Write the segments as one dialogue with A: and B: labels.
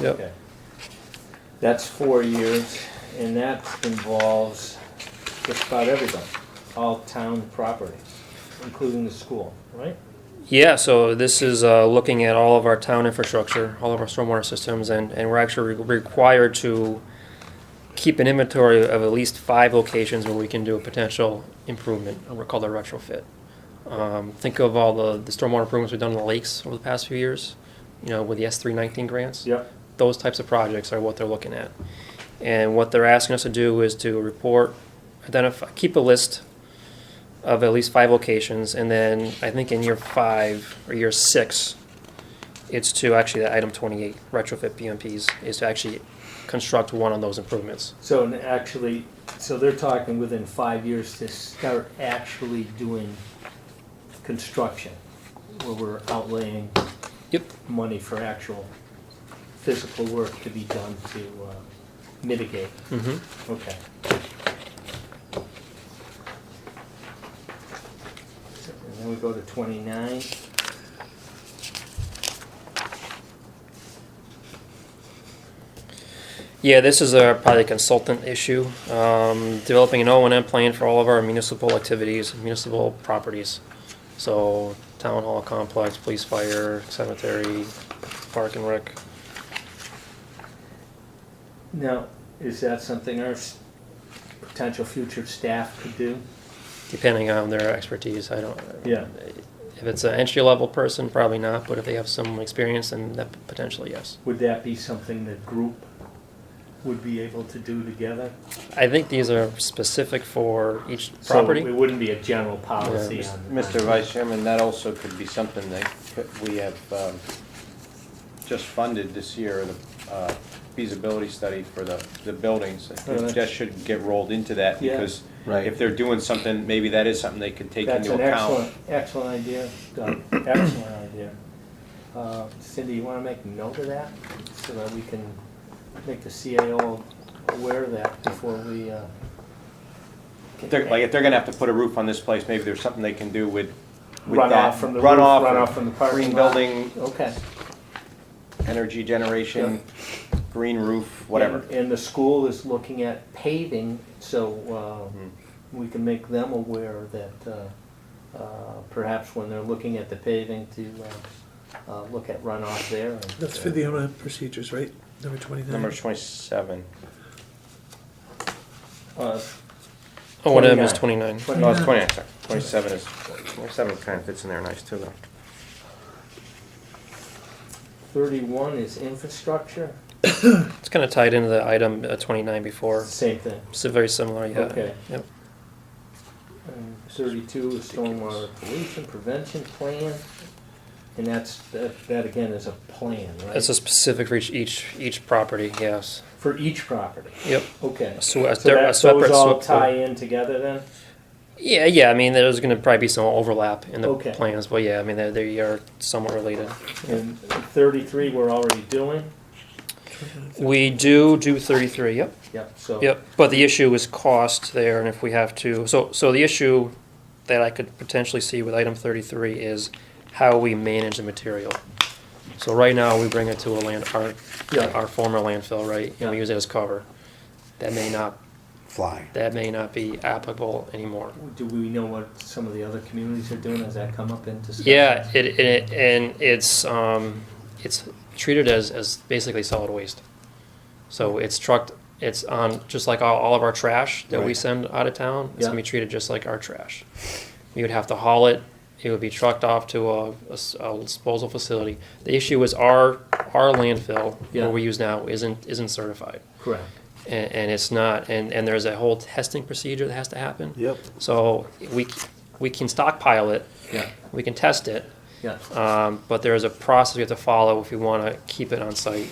A: Yep,
B: Okay. That's four years, and that involves just about everybody, all town property, including the school, right?
C: Yeah, so this is uh, looking at all of our town infrastructure, all of our stormwater systems, and, and we're actually re- required to keep an inventory of at least five locations where we can do a potential improvement, and we're called a retrofit. Um, think of all the, the stormwater improvements we've done in the lakes over the past few years, you know, with the S three nineteen grants.
B: Yep.
C: Those types of projects are what they're looking at. And what they're asking us to do is to report, identify, keep a list of at least five locations, and then I think in year five or year six, it's to actually, the item twenty-eight, retrofit BMPs, is to actually construct one of those improvements.
B: So, and actually, so they're talking within five years to start actually doing construction, where we're outlaying
C: Yep.
B: money for actual physical work to be done to uh, mitigate.
C: Mm-hmm.
B: Okay. And then we go to twenty-nine.
C: Yeah, this is a probably a consultant issue. Um, developing an O and M plan for all of our municipal activities, municipal properties. So town hall complex, police fire, cemetery, park and rec.
B: Now, is that something our s- potential future staff could do?
C: depending on their expertise. I don't.
B: Yeah.
C: If it's an entry level person, probably not. But if they have some experience, then that potentially yes.
B: Would that be something the group would be able to do together?
C: I think these are specific for each
B: So
C: property.
B: It wouldn't be a general policy
C: Yeah.
B: on.
A: Mr. Vice Chairman, that also could be something that could- we have um, just funded this year, the uh, feasibility study for the, the buildings. It just should get rolled into that
B: Yeah.
A: because
D: Right.
A: if they're doing something, maybe that is something they could take
B: That's
A: into
B: an
A: account.
B: excellent, excellent idea, Doug, excellent idea. Uh, Cindy, you wanna make note of that, so that we can make the CAO aware of that before we, uh.
A: If they're- Like, if they're gonna have to put a roof on this place, maybe there's something they can do with, with
B: Runoff
A: that.
B: from the roof,
A: runoff,
B: runoff from the parking
A: Green
B: lot.
A: building,
B: Okay.
A: energy generation, green roof, whatever.
B: And- And the school is looking at paving, so, uh,
A: Mm-hmm.
B: we can make them aware that, uh, uh, perhaps when they're looking at the paving to, uh, uh, look at runoff there. and-
E: That's for the O&M procedures, right? Number twenty-nine?
A: Number twenty-seven.
B: Uh,
C: O and M is twenty nine.
A: No, it's twenty-nine, sorry. Twenty-seven is, twenty-seven kind of fits in there nice too, though.
B: thirty-one is infrastructure,
C: It's kind of tied into the item uh, twenty nine before.
B: same thing.
C: So very similar. Yeah.
B: Okay.
C: Yep.
B: And Thirty-two is stormwater pollution prevention plan, and that's, that, that again is a plan,
C: It's
B: right?
C: a specific for each each each property. Yes.
B: For each property,
C: Yep.
B: okay.
C: So, a,
B: So
C: they're a
B: that,
C: separate. uh,
B: those all
C: SWIP.
B: tie in together then?
C: Yeah, yeah. I mean, there's going to probably be some overlap in the
B: Okay.
C: plans, but yeah, I mean, they, they are somewhat related.
B: And thirty-three, we're already doing,
C: We do do 33. Yep.
B: yep, so.
C: Yep, but the issue is cost there, and if we have to, so, so the issue that I could potentially see with item thirty-three is how we manage the material. So right now, we bring it to a land, our,
B: Yeah.
C: our former landfill, right, and we
B: Yeah.
C: use it as cover. That may not,
D: Fly.
C: that may not be applicable anymore.
B: Do we know what some of the other communities are doing, has that come up in discussion?
C: Yeah, it, it, and it's, um, it's treated as, as basically solid waste. So it's trucked, it's on, just like all, all of our trash that we
D: Right.
C: send out of town, it's gonna
B: Yeah.
C: be treated just like our trash. We would have to haul it, it would be trucked off to a, a s- a disposal facility. The issue is our, our landfill,
B: Yeah.
C: where we use now, isn't, isn't certified.
B: Correct,
C: And, and it's not, and, and there's a whole testing procedure that has to happen.
D: Yep.
C: So we, c- we can stockpile it,
B: yeah,
C: we can test it,
B: yeah,
C: um, but there is a process we have to follow if we want to keep it on site,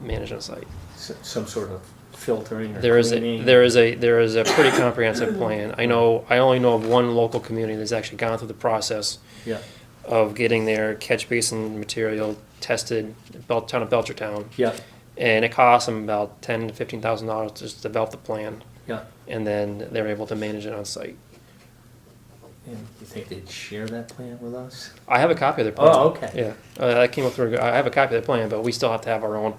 C: manage on site.
B: S- some sort of filtering or
C: There is a,
B: cleaning.
C: there is a there is a pretty comprehensive plan. I know I only know of one local community that's actually gone through the process
B: Yeah,
C: of getting their catch basin material tested, Bel- town of Belchertown,
B: yeah,
C: and it costs them about ten to fifteen thousand dollars just to develop the plan,
B: yeah,
C: and then they're able to manage it on site.
B: and you think they'd share that plan with us?
C: I have a copy of their plan.
B: Oh, okay.
C: Yeah, uh, that came up through. I have a copy of the plan, but we still have to have our own